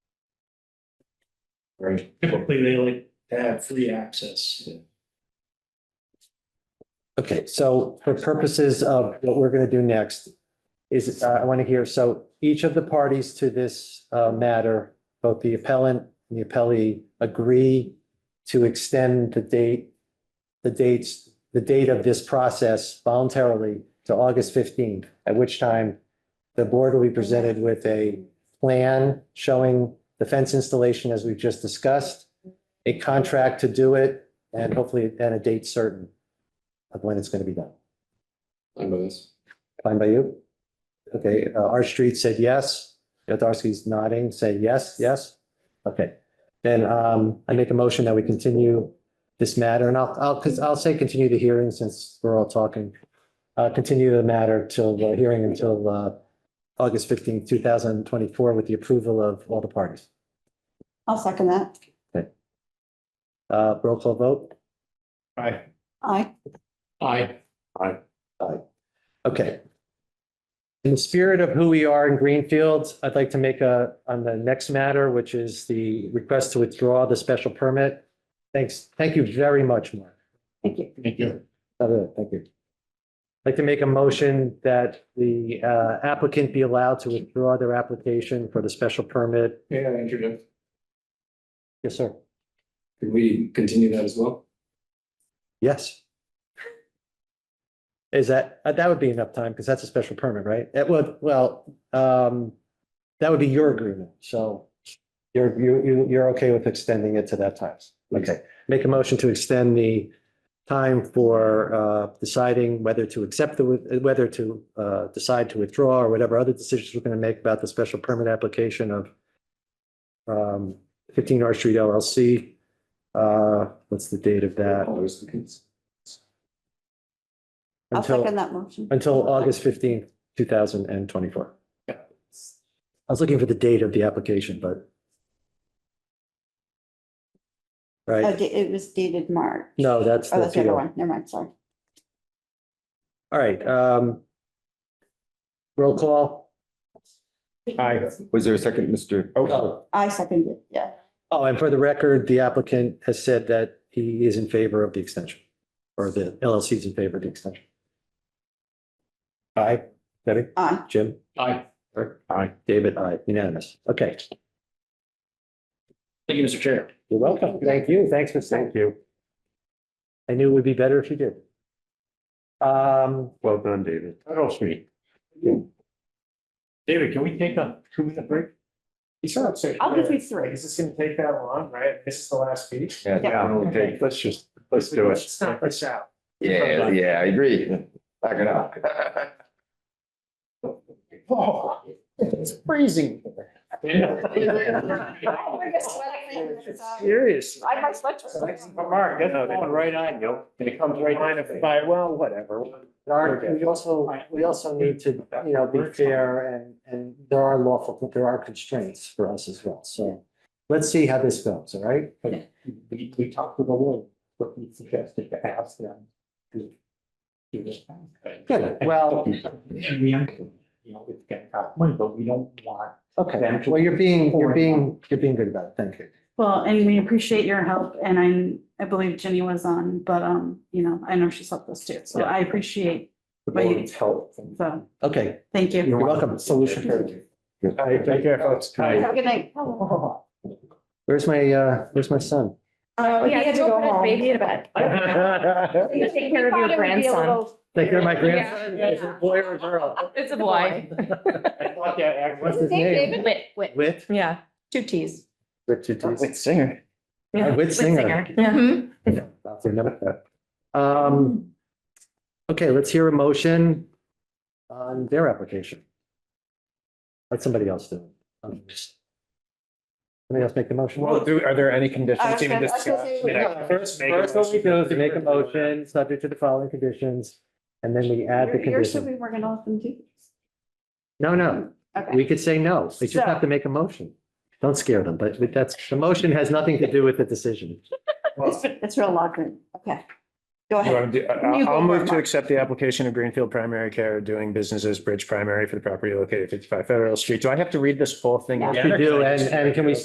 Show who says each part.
Speaker 1: Right.
Speaker 2: Typically, they like to have free access.
Speaker 3: Okay, so for purposes of what we're going to do next is, uh, I want to hear, so each of the parties to this uh, matter, both the appellant and the appellee agree to extend the date, the dates, the date of this process voluntarily to August 15th, at which time the board will be presented with a plan showing the fence installation as we've just discussed, a contract to do it, and hopefully, and a date certain of when it's going to be done.
Speaker 1: I know this.
Speaker 3: Fine by you? Okay, uh, R Street said yes. Yodarski's nodding, say yes, yes. Okay, then um, I make a motion that we continue this matter and I'll, I'll, because I'll say continue the hearing since we're all talking. Uh, continue the matter till the hearing until uh, August fifteenth, two thousand twenty-four with the approval of all the parties.
Speaker 4: I'll second that.
Speaker 3: Uh, roll call vote.
Speaker 2: Aye.
Speaker 4: Aye.
Speaker 2: Aye.
Speaker 3: Okay. In the spirit of who we are in Greenfield, I'd like to make a, on the next matter, which is the request to withdraw the special permit. Thanks. Thank you very much, Mark.
Speaker 4: Thank you.
Speaker 2: Thank you.
Speaker 3: Uh, Thank you. I'd like to make a motion that the uh, applicant be allowed to withdraw their application for the special permit.
Speaker 1: Yeah, Andrew,
Speaker 3: Yes, sir.
Speaker 1: could we continue that as well?
Speaker 3: Yes. Is that, uh, that would be enough time because that's a special permit, right? It would, well, um, that would be your agreement, so you're, you, you, you're okay with extending it to that time. Okay, make a motion to extend the time for, uh, deciding whether to accept the, with- whether to, uh, decide to withdraw or whatever other decisions we're going to make about the special permit application of um, fifteen R Street LLC. Uh, what's the date of that?
Speaker 1: All those things.
Speaker 4: I'll second
Speaker 3: Until,
Speaker 4: that motion.
Speaker 3: until August fifteenth, two thousand and twenty-four. I was looking for the date of the application, but.
Speaker 4: Oh,
Speaker 3: Right,
Speaker 4: Uh, da- It was dated March.
Speaker 3: no, that's
Speaker 4: Oh,
Speaker 3: the
Speaker 4: that's the other
Speaker 3: deal.
Speaker 4: one. Never mind, sorry.
Speaker 3: All right, um. Roll call.
Speaker 2: Aye.
Speaker 1: Was there a second, Mr.?
Speaker 3: Oh,
Speaker 4: I seconded it, yeah.
Speaker 3: oh, and for the record, the applicant has said that he is in favor of the extension. Or the LLC is in favor of the extension. Aye, Debbie,
Speaker 4: Aye.
Speaker 3: Jim?
Speaker 2: Aye.
Speaker 3: Aye. David, aye, unanimous. Okay.
Speaker 2: Thank you, Mr. Chair.
Speaker 3: You're welcome. Thank you. Thanks for saying. Thank you. I knew it would be better if you did. Um,
Speaker 5: Well done, David. That helps me.
Speaker 2: David, can we take a two minute break?
Speaker 5: You sound sick.
Speaker 4: I'll give you three.
Speaker 5: Is this gonna take that long, right? This is the last speech?
Speaker 1: Yeah,
Speaker 5: Yeah, it'll
Speaker 4: Okay.
Speaker 5: take- let's just, let's do it.
Speaker 2: Let's knock this out.
Speaker 1: yeah, yeah, I agree. Back it up.
Speaker 5: Oh, it's freezing. here. Seriously.
Speaker 4: I might sweat.
Speaker 5: Mark, that's going right on you. It comes right on. By, well, whatever.
Speaker 3: Art, we also, we also need to, you know, be fair and, and there are lawful, there are constraints for us as well. So let's see how this goes, all right?
Speaker 5: We, we talked to the lawyer, what we suggested to ask them. to do this.
Speaker 3: Good. Well,
Speaker 5: And we, you know, it's gonna cost money, but we don't want
Speaker 3: okay. Well, you're being, you're being, you're being good about it. Thank you.
Speaker 6: Well, and we appreciate your help and I, I believe Jenny was on, but, um, you know, I know she's helped us too, so I appreciate,
Speaker 5: the
Speaker 6: But you-
Speaker 5: board's help. and-
Speaker 6: so,
Speaker 3: Okay.
Speaker 6: thank you.
Speaker 3: You're welcome.
Speaker 5: Solution for you. All right, take care, folks.
Speaker 4: Have a good night.
Speaker 5: Oh,
Speaker 3: Where's my, uh, where's my son?
Speaker 4: Uh,
Speaker 7: Oh,
Speaker 8: He
Speaker 7: yeah,
Speaker 8: had to
Speaker 7: go
Speaker 8: go
Speaker 7: home.
Speaker 8: home. Baby to bed. You take care of your grandson.
Speaker 3: Take care of my grandson. Is it a boy or a girl?
Speaker 8: It's a boy.
Speaker 5: I thought that act
Speaker 3: What's
Speaker 5: was-
Speaker 3: his name?
Speaker 8: Wit, wit.
Speaker 3: Whit?
Speaker 8: Yeah, two Ts.
Speaker 3: Whit, two Ts.
Speaker 1: singer.
Speaker 8: Yeah.
Speaker 3: Whit Singer.
Speaker 8: Yeah.
Speaker 3: I'll remember that. Um, okay, let's hear a motion on their application. Let somebody else do it. Um, Somebody else make the motion.
Speaker 5: Well, do, are there any
Speaker 4: I was
Speaker 5: conditions even
Speaker 4: gonna- I was gonna
Speaker 5: discussed?
Speaker 4: say-
Speaker 5: I mean, I-
Speaker 3: First,
Speaker 5: make a
Speaker 3: first what we
Speaker 5: motion.
Speaker 3: do is we make a motion subject to the following conditions, and then we add the
Speaker 4: You're you're
Speaker 3: condition.
Speaker 4: assuming we're gonna let them do this.
Speaker 3: No, no,
Speaker 4: Okay.
Speaker 3: we could say no. They just have to make a motion. Don't scare them, but but that's, the motion has nothing to do with the decision.
Speaker 4: It's, it's real logic. Okay. Go
Speaker 5: You
Speaker 4: ahead.
Speaker 5: wanna do-
Speaker 4: You
Speaker 5: I- I'll
Speaker 4: go
Speaker 5: I'll
Speaker 4: for it,
Speaker 5: move to
Speaker 4: Mark.
Speaker 5: accept the application of Greenfield Primary Care doing business as Bridge Primary for the property located at fifty-five Federal Street. Do I have to read this whole thing?
Speaker 4: Yeah.
Speaker 3: You do, and and can we